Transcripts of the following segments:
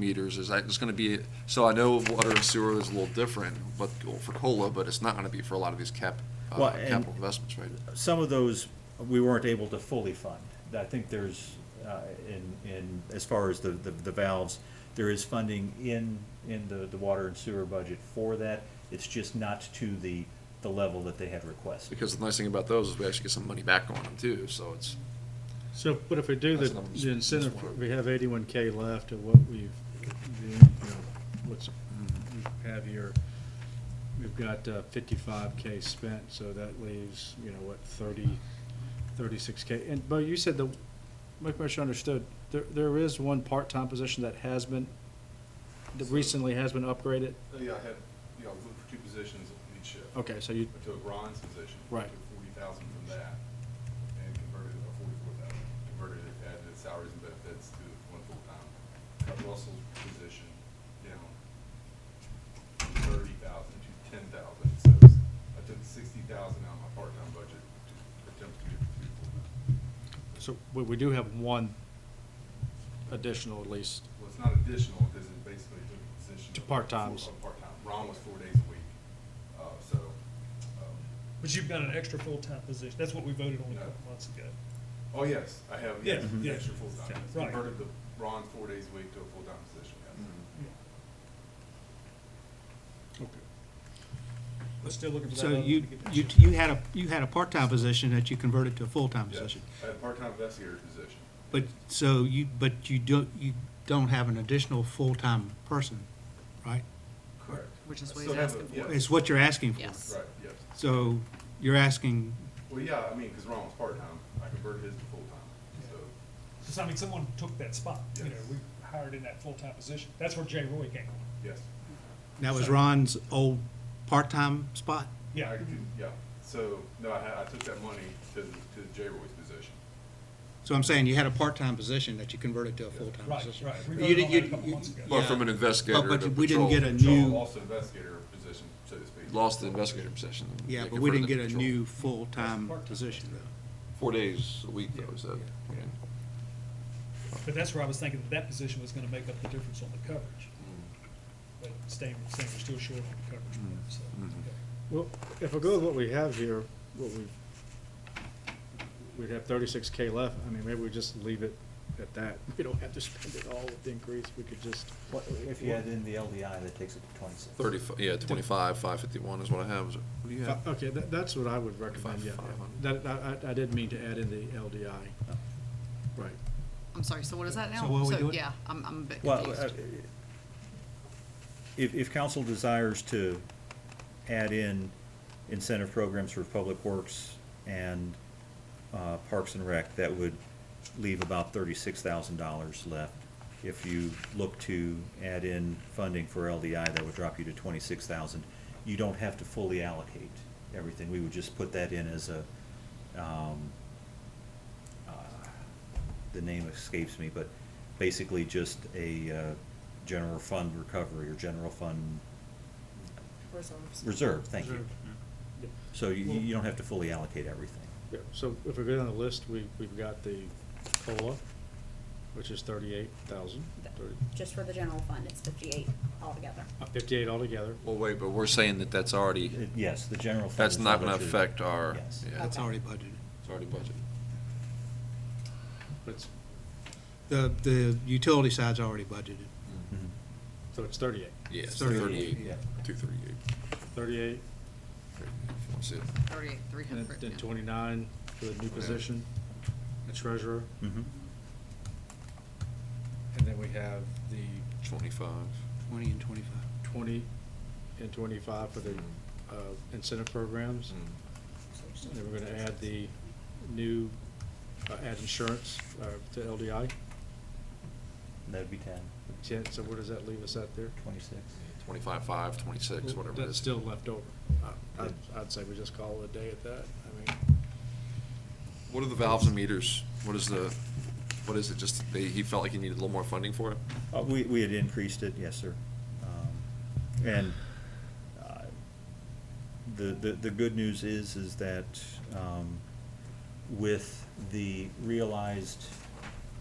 meters, is that it's gonna be, so I know water and sewer is a little different, but for COLA, but it's not gonna be for a lot of these cap, Well, uh, and- capital investments, right? some of those we weren't able to fully fund. I think there's, uh, in, in, as far as the, the the valves, there is funding in, in the, the water and sewer budget for that. It's just not to the, the level that they had requested. Because the nice thing about those is we actually get some money back on them too, so it's, So, but if we do the, That's not- the incentive, that's one. we have eighty-one K left of what we've, the, you know, what's, we have here, we've got uh, fifty-five K spent, so that leaves, you know, what, 30, 36 K. And, but you said the, make sure I understood, there, there is one part-time position that has been, that recently has been upgraded? Uh, Yeah, I had, you know, I was looking for two positions in each shift. Okay, so you, I took Ron's position. Right. Took forty thousand from that and converted it, or forty-four thousand, converted it, added salaries and benefits to one full-time. Cut Russell's position down from thirty thousand to ten thousand, so it's- I took sixty thousand out of my part-time budget to attempt to get two full-time. so we, we do have one additional at least. Well, it's not additional, because it basically took a position. To of part-times. full- of Part-time, Ron was four days a week, uh, so, um, But you've got an extra full-time position. That's what we voted on a couple months ago. Oh, yes, I have, Yeah, yes, yeah. extra full-time. Yeah, It's right. Converted the Ron's four days a week to a full-time position, yes. Mm-hmm. We're still looking for that. So other one you, to get that you, shift. you had a, you had a part-time position that you converted to a full-time Yes. position. I had a part-time investigator position. But, so you, but you don't, you don't have an additional full-time person, right? Correct. Which is I what still he's have a- asking yeah, It's what you're asking for. Yes. Right, yes. So you're asking, Well, yeah, I mean, because Ron was part-time, I converted his to full-time, so, So, I mean, someone took that spot, you know, Yes. we hired in that full-time position. That's where Jay Roy came from. yes. that was Ron's old part-time spot? Yeah. I could- Yeah, so, no, I had, I took that money to, the- to the J. Roy's position. So I'm saying you had a part-time position that you converted to a full-time Right, position. right. We You voted did- on you- that a couple you- months ago. but from an yeah. Oh, investigator to But- But we didn't patrol. get a Joel new, lost the investigator position, so to speak. lost the investigator position. and yeah, they but we didn't converted get it a to patrol. new full-time Part-time. position though. Four days a week though, is that? Yeah. okay. But that's where I was thinking that that position was gonna make up the difference on the coverage. But staying, staying we're still short on the coverage Mm. part, so. Mm-hmm. Mhm. okay. Well, if I go with what we have here, what we, we'd have thirty-six K left, I mean, maybe we just leave it at that. We don't have to spend it all with the increase, we could just, What- If you add in the LDI, that takes it to twenty-six. Thirty, yeah, twenty-five, five fifty-one is what I have. Is it- What do you oh. have? okay, that, that's what I would recommend, yeah. Five hundred. That, I, I- I didn't mean to add in the LDI. Oh. Right. I'm sorry, so what is that now? So what are we doing? Yeah, I'm, I'm a bit Well, uh, confused. if, if council desires to add in incentive programs for Public Works and uh, Parks and Rec, that would leave about thirty-six thousand dollars left. If you look to add in funding for LDI, that would drop you to twenty-six thousand. You don't have to fully allocate everything. We would just put that in as a, um, uh, the name escapes me, but basically just a uh, general fund recovery or general fund reserve, thank you. Yeah. So you, you don't have to fully allocate everything. Yeah, so if we go down the list, we, we've got the COLA, which is thirty-eight thousand, thirty, Just for the general fund, it's fifty-eight altogether. uh, fifty-eight altogether. Well, wait, but we're saying that that's already, Uh, Yes, the general fund. that's is not gonna budgeted. affect our, Yes. yeah, That's it's Okay. already budgeted. already budgeted. But It's, The, the utility side's already budgeted. Mhm. so it's thirty-eight. Yeah, it's Thirty-eight, thirty-eight, yeah. two thirty-eight. Thirty-eight, That's it. Thirty-eight, three and hundred. then twenty-nine for the new Yeah. Hmm. position, the treasurer. Mhm. And then we have the Twenty-five. Twenty and twenty-five. twenty and twenty-five for the uh, incentive programs. Hmm. And then we're gonna add the new, uh, add insurance uh, to LDI. That'd be ten, Ten, so where does that leave us at there? twenty-six. Twenty-five, five, twenty-six, whatever it is. That's still left over. I- I'd, I'd say we just call it a day at that. I mean, What are the valves and meters? What is the, what is it? Just they, he felt like he needed a little more funding for it? Uh, we, we had increased it, yes, sir. Um, And uh, the, the, the good news is, is that um, with the realized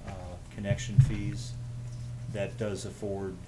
uh, connection fees, that does afford